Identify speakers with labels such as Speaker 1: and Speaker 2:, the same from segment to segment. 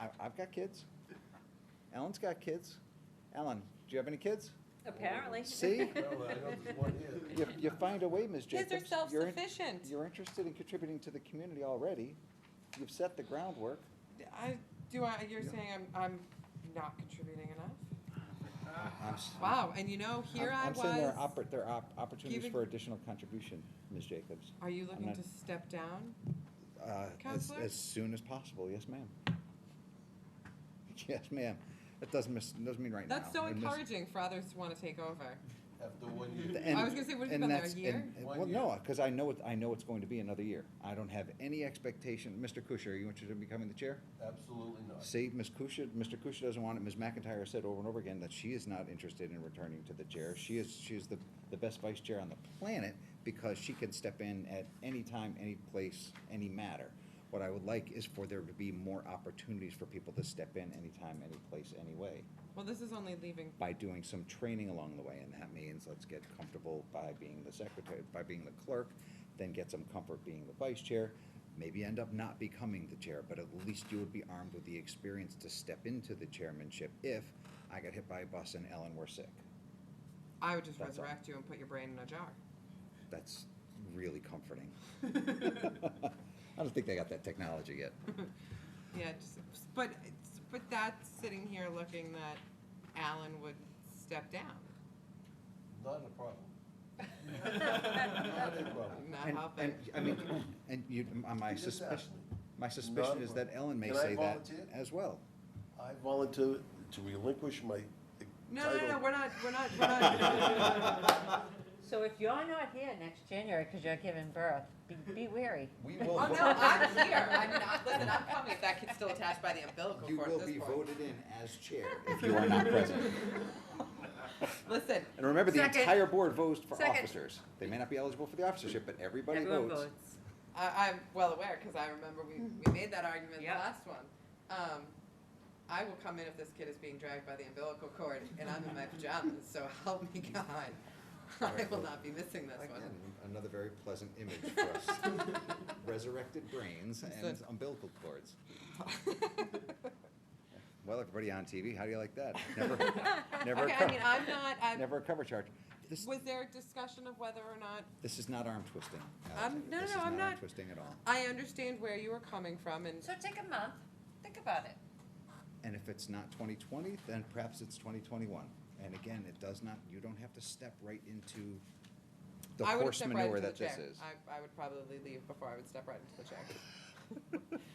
Speaker 1: I, I've got kids. Ellen's got kids. Ellen, do you have any kids?
Speaker 2: Apparently.
Speaker 1: See?
Speaker 3: Well, I know there's one
Speaker 1: You,
Speaker 3: here.
Speaker 1: you find a way, Ms.
Speaker 4: Kids
Speaker 1: Jacobs.
Speaker 4: are
Speaker 1: You're in-
Speaker 4: self-sufficient.
Speaker 1: You're interested in contributing to the community already. You've set the groundwork.
Speaker 4: I, do I, you're saying I'm, I'm not contributing enough?
Speaker 1: I'm s-
Speaker 4: Wow, and you know, here
Speaker 1: I'm-
Speaker 4: I
Speaker 1: I'm saying there are,
Speaker 4: was,
Speaker 1: oppor- there are opportunities
Speaker 4: giving-
Speaker 1: for additional contribution, Ms. Jacobs.
Speaker 4: are you looking
Speaker 1: not-
Speaker 4: to step down?
Speaker 1: Uh, as,
Speaker 4: Counselor?
Speaker 1: as soon as possible, yes, ma'am. Yes, ma'am. That doesn't miss, doesn't mean right now.
Speaker 4: That's so
Speaker 1: It miss-
Speaker 4: encouraging for others to wanna take over.
Speaker 3: After one year.
Speaker 1: The end-
Speaker 4: was gonna say, what has it
Speaker 1: and
Speaker 4: been there, a
Speaker 1: that's-
Speaker 4: year?
Speaker 1: and- and-
Speaker 3: One
Speaker 1: Well, no,
Speaker 3: year.
Speaker 1: because I know, it- I know it's going to be another year. I don't have any expectation. Mr. Kusher, are you interested in becoming the chair?
Speaker 3: Absolutely not.
Speaker 1: See, Ms. Kusher, Mr. Kusher doesn't want it. Ms. McIntyre said over and over again that she is not interested in returning to the chair. She is, she is the, the best vice chair on the planet because she can step in at any time, any place, any matter. What I would like is for there to be more opportunities for people to step in anytime, any place, any way
Speaker 4: Well, this is only leaving,
Speaker 1: by doing some training along the way, and that means let's get comfortable by being the secretary, by being the clerk, then get some comfort being the vice chair, maybe end up not becoming the chair, but at least you would be armed with the experience to step into the chairmanship if I got hit by a bus and Ellen were sick.
Speaker 4: I would just
Speaker 1: That's all.
Speaker 4: resurrect you and put your brain in a jar.
Speaker 1: That's really comforting. I don't think they got that technology yet.
Speaker 4: Yeah, just, but, it's- but that's sitting here looking that Alan would step down,
Speaker 3: Not a problem. Not a problem.
Speaker 4: not
Speaker 1: And-
Speaker 4: helping.
Speaker 1: And, I mean, and you, my
Speaker 3: You just asked
Speaker 1: suspicion,
Speaker 3: me.
Speaker 1: my suspicion is that Ellen may
Speaker 3: Can I
Speaker 1: say that
Speaker 3: volunteer?
Speaker 1: as well.
Speaker 3: I volunteer to relinquish my
Speaker 4: No,
Speaker 3: title.
Speaker 4: no, no, we're not, we're not, we're not.
Speaker 2: So if you're not here next January because you're giving birth, be, be wary.
Speaker 1: We will.
Speaker 4: Oh, no, I'm here. I'm not, listen, I'm coming if that kid's still attached by the umbilical
Speaker 1: You
Speaker 4: cord at
Speaker 1: will
Speaker 4: this
Speaker 1: be
Speaker 4: point.
Speaker 1: voted in as chair if you are not present.
Speaker 4: Listen,
Speaker 1: And remember, the
Speaker 2: Second.
Speaker 1: entire board votes for
Speaker 2: Second.
Speaker 1: officers. They may not be eligible for the officership, but everybody
Speaker 2: Everyone
Speaker 1: votes.
Speaker 2: votes.
Speaker 4: I, I'm well aware because I remember we,
Speaker 2: Mm-hmm.
Speaker 4: we made that argument in the
Speaker 2: Yep.
Speaker 4: last one. Um, I will come in if this kid is being dragged by the umbilical cord and I'm in my pajamas, so help me God. I
Speaker 1: Alright,
Speaker 4: will
Speaker 1: well,
Speaker 4: not be missing this one.
Speaker 1: Again, another very pleasant image for us. Resurrected brains and
Speaker 4: Listen.
Speaker 1: umbilical cords. Well, everybody on TV, how do you like that? Never, never a
Speaker 4: Okay, I mean,
Speaker 1: cover,
Speaker 4: I'm not, I,
Speaker 1: never a cover charge. This,
Speaker 4: was there a discussion of whether or not
Speaker 1: this is not arm twisting. Alexander.
Speaker 4: no,
Speaker 1: This
Speaker 4: no,
Speaker 1: is
Speaker 4: I'm
Speaker 1: arm
Speaker 4: not-
Speaker 1: Twisting at all.
Speaker 4: I understand where you were coming from and
Speaker 2: So take a month, think about it.
Speaker 1: And if it's not twenty twenty, then perhaps it's twenty twenty-one. And again, it does not, you don't have to step right into the
Speaker 4: I would
Speaker 1: horse
Speaker 4: step right
Speaker 1: manure
Speaker 4: into
Speaker 1: that
Speaker 4: the
Speaker 1: this
Speaker 4: chair.
Speaker 1: is.
Speaker 4: I, I would probably leave before I would step right into the chair.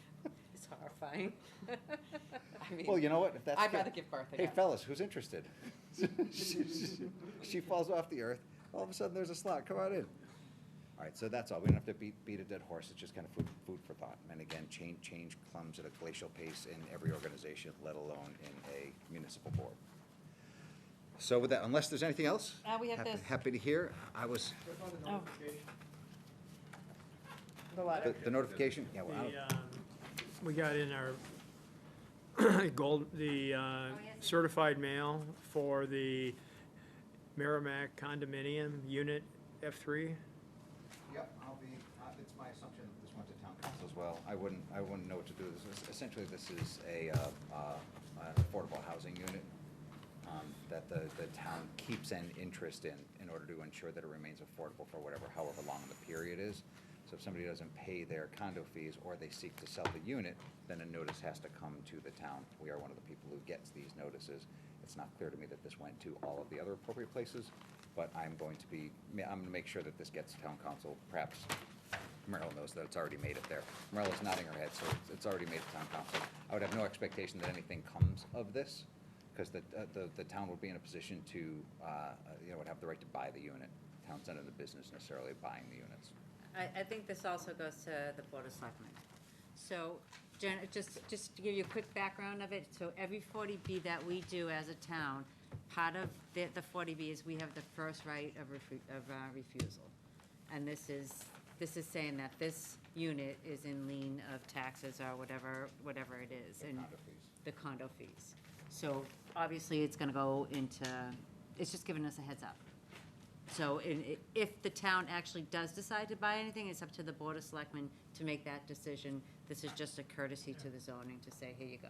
Speaker 2: It's horrifying.
Speaker 4: I mean,
Speaker 1: Well, you know what, if that's.
Speaker 4: I'd
Speaker 1: the-
Speaker 4: rather give birth
Speaker 1: Hey
Speaker 4: again.
Speaker 1: fellas, who's interested? She- she- She falls off the earth, all of a sudden there's a slot, come on in. All right, so that's all, we don't have to beat, beat a dead horse, it's just kind of food, food for thought. And again, change, change comes at a glacial pace in every organization, let alone in a municipal board. So with that, unless there's anything else?
Speaker 2: Uh, we have
Speaker 1: happy-
Speaker 2: this.
Speaker 1: Happy to hear, I was,
Speaker 2: Oh. The
Speaker 1: the-
Speaker 2: letter.
Speaker 1: the notification, yeah, well, I don't-
Speaker 5: The, um, We got in our gold, the uh,
Speaker 2: yes.
Speaker 5: certified mail for the Merrimack condominium unit F3.
Speaker 1: Yep, I'll be, uh, it's my assumption that this went to town council as well. I wouldn't, I wouldn't know what to do. This is, essentially, this is a, uh, uh, an affordable housing unit, um, that the, the town keeps an interest in, in order to ensure that it remains affordable for whatever, however long the period is. So if somebody doesn't pay their condo fees or they seek to sell the unit, then a notice has to come to the town. We are one of the people who gets these notices. It's not clear to me that this went to all of the other appropriate places, but I'm going to be, ma- I'm gonna make sure that this gets to town council, perhaps Merrill knows that it's already made it there. Merrill is nodding her head, so it's, it's already made it to town council. I would have no expectation that anything comes of this, because the, uh, the, the town would be in a position to, uh, uh, you know, would have the right to buy the unit. Town's not in the business necessarily of buying the units.
Speaker 2: I, I think this also goes to the Board of Selectmen. So, Jen, just, just to give you a quick background of it, so every forty B that we do as a town, part of the, the forty B is we have the first right of refu- of uh, refusal. And this is, this is saying that this unit is in lien of taxes or whatever, whatever it is. and
Speaker 1: condo fees.
Speaker 2: The condo fees. So obviously, it's gonna go into, it's just giving us a heads up. So in- i- if the town actually does decide to buy anything, it's up to the Board of Selectmen to make that decision. This is just a courtesy to the zoning to say, here you go.